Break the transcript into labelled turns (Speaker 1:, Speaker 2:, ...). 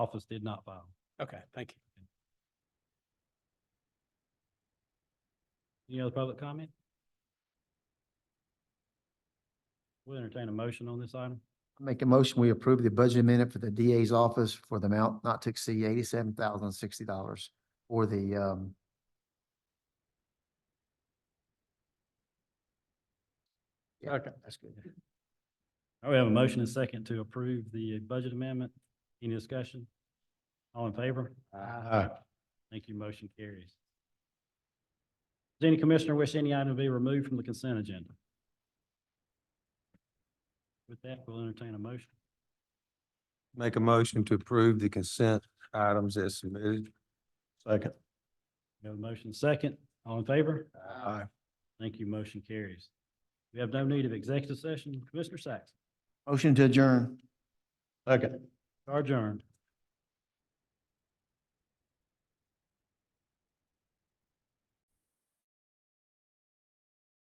Speaker 1: office did not file.
Speaker 2: Okay, thank you.
Speaker 1: Any other public comment? We'll entertain a motion on this item.
Speaker 3: Make a motion, we approve the budget amendment for the DA's office for the amount not to exceed eighty-seven thousand sixty dollars for the, um, Yeah.
Speaker 2: Okay,
Speaker 3: that's good.
Speaker 1: All right, we have a motion and second to approve the budget amendment. Any discussion? All in favor?
Speaker 2: Aye.
Speaker 1: Thank you. Motion carries. Does any commissioner wish any item to be removed from the consent agenda? With that, we'll entertain a motion.
Speaker 4: Make a motion to approve the consent items as submitted. Second.
Speaker 1: We have a motion second. All in favor?
Speaker 4: Aye.
Speaker 1: Thank you. Motion carries. We have no need of executive session. Commissioner Sacks,
Speaker 3: Motion to adjourn.
Speaker 4: Second.
Speaker 1: you are adjourned.